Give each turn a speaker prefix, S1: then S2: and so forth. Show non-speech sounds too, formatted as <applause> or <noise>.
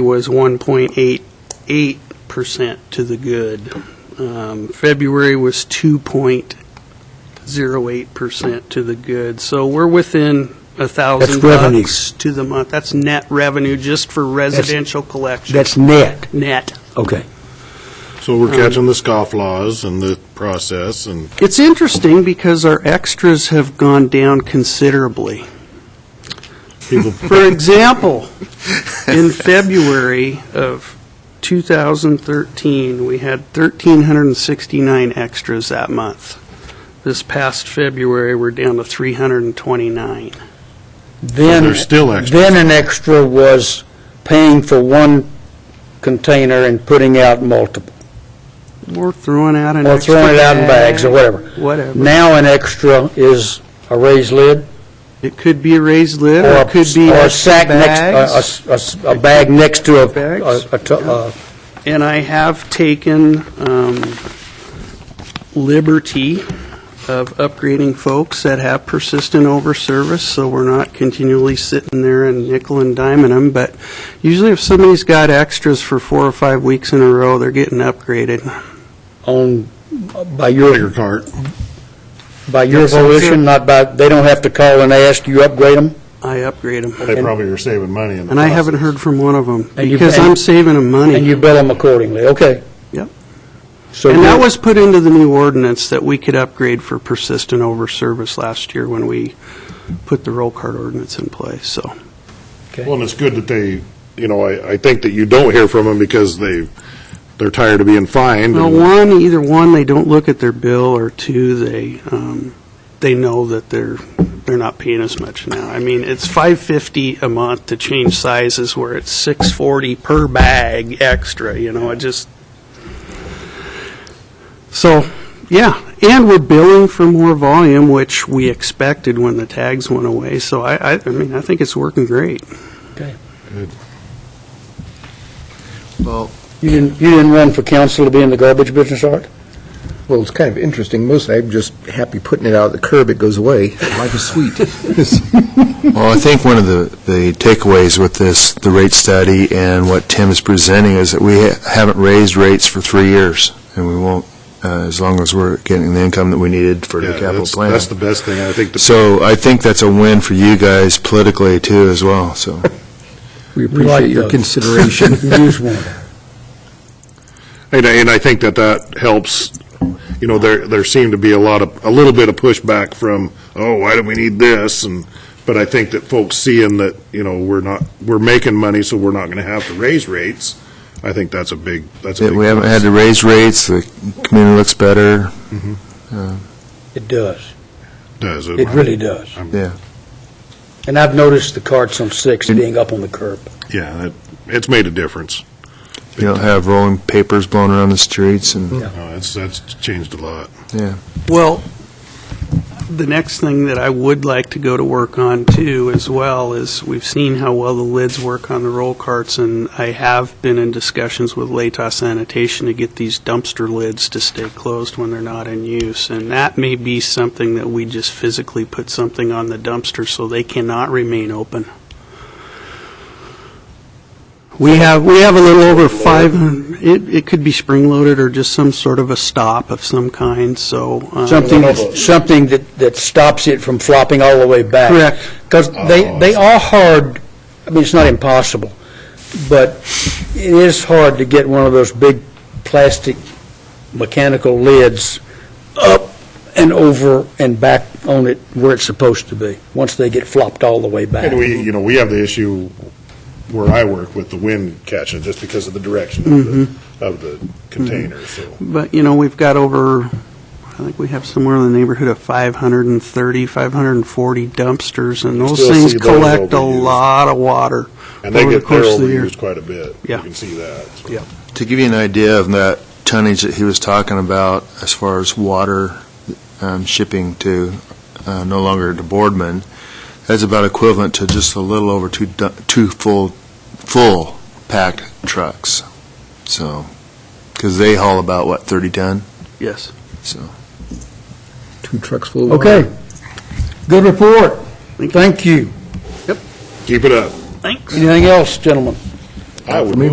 S1: was 1.88% to the good. Um, February was 2.08% to the good. So we're within a 1,000
S2: That's revenue.
S1: bucks to the month. That's net revenue just for residential collection.
S2: That's net,
S1: Net.
S2: okay.
S3: So
S2: Um,
S3: we're catching the scofflaws and the process and
S1: It's interesting because our extras have gone down considerably.
S2: <laughs>
S3: people,
S1: For example, in February of 2013, we had 1,369 extras that month. This past February, we're down to 329.
S2: Then,
S3: there's still extras.
S2: Then an extra was paying for one container and putting out multiple,
S1: We're throwing out an
S2: or
S1: extra
S2: throwing it out in bags or
S1: bag,
S2: whatever.
S1: Whatever.
S2: Now an extra is a raised lid
S1: It could be a raised lid,
S2: or
S1: or
S2: a
S1: it could be
S2: or a
S1: extra
S2: sack next, a-
S1: bags.
S2: a s- a s- a bag next to a-
S1: Bags.
S2: a, a to- uh, a-
S1: And I have taken um, liberty of upgrading folks that have persistent overservice, so we're not continually sitting there and nickel and diming them. But usually if somebody's got extras for four or five weeks in a row, they're getting upgraded.
S2: on, by
S3: your
S2: your,
S3: cart.
S2: by your
S1: Yes, sir.
S2: volition, not by, they don't have to call and ask, you upgrade them?
S1: I upgrade them.
S3: They probably are saving money in the
S1: And I haven't
S3: process.
S1: heard from one of them,
S2: And you-
S1: because
S2: and-
S1: I'm saving them money.
S2: And you bill them accordingly, okay.
S1: Yep.
S2: So
S1: And that
S2: you-
S1: was put into the new ordinance that we could upgrade for persistent overservice last year when we put the roll card ordinance in place, so.
S3: Well, and it's good that they, you know, I, I think that you don't hear from them because they, they're tired of being fined.
S1: Well,
S3: and-
S1: one, either one, they don't look at their bill, or two, they, um, they know that they're, they're not paying as much now. I mean, it's five fifty a month to change sizes, where it's six forty per bag extra, you know, it just. So, yeah, and we're billing for more volume, which we expected when the tags went away, so I, I, I mean, I think it's working great.
S2: You didn't, you didn't run for council to be in the garbage business, Art?
S4: Well, it's kind of interesting. Mostly, I'm just happy putting it out of the curb. It goes away. Life is sweet. <laughs>
S5: Well, I think one of the, the takeaways with this, the rate study and what Tim is presenting is that we ha- haven't raised rates for three years, and we won't, uh, as long as we're getting the income that we needed for the
S3: Yeah,
S5: capital
S3: that's,
S5: plan.
S3: that's the best thing. I think the
S5: So I think that's a win for you guys politically too as
S3: <laughs>
S5: well, so.
S4: We
S2: like
S4: appreciate your
S2: those.
S4: consideration.
S2: <laughs> You just wanted.
S3: And, I- and I think that that helps, you know, there, there seemed to be a lot of, a little bit of pushback from, oh, why do we need this? And, but I think that folks seeing that, you know, we're not, we're making money, so we're not going to have to raise rates, I think that's a big, that's a
S5: Yeah,
S3: big.
S5: We haven't had to raise rates, the community looks better,
S2: It does.
S3: Does
S2: It really does.
S5: yeah.
S2: And I've noticed the carts on Sixth being up on the curb.
S3: Yeah, that- it's made a difference.
S5: You don't have rolling papers blown around the streets and,
S3: No, Uh, That's, that's changed a lot.
S5: yeah.
S1: Well, the next thing that I would like to go to work on too as well is we've seen how well the lids work on the roll carts and I have been in discussions with Latos Sanitation to get these dumpster lids to stay closed when they're not in use. And that may be something that we just physically put something on the dumpster so they cannot remain open. We have, we have a little over five, it, it could be spring-loaded or just some sort of a stop of some kind, so. um,
S2: Something, that's- something that, that stops it from flopping all the way back.
S1: Correct.
S2: Because they, they are hard, I mean, it's not impossible, but it is hard to get one of those big plastic mechanical lids up and over and back on it where it's supposed to be, once they get flopped all the way back.
S3: And we, you know, we have the issue where I work with the wind catching, just because of the direction of
S1: Mm-hmm.
S3: the, of the container, so.
S1: But, you know, we've got over, I think we have somewhere in the neighborhood of 530, 540 dumpsters, and those
S3: Still
S1: things
S3: see those
S1: collect a
S3: overused.
S1: lot of water.
S3: And they
S1: over the
S3: get, they're
S1: course of the year.
S3: overused quite a bit.
S1: Yeah.
S3: You can see that. so.
S1: Yeah.
S5: To give you an idea of that tonnage that he was talking about as far as water um, shipping to, uh, no longer to Boardman, that's about equivalent to just a little over two, du- two full, full packed trucks. So, because they haul about, what, 30 ton?
S1: Yes.
S5: So.
S4: Two trucks full of water.
S2: Okay. Good report. Thank you.
S3: Keep it up.
S1: Thanks.
S2: Anything else, gentlemen?
S3: I would
S4: For me,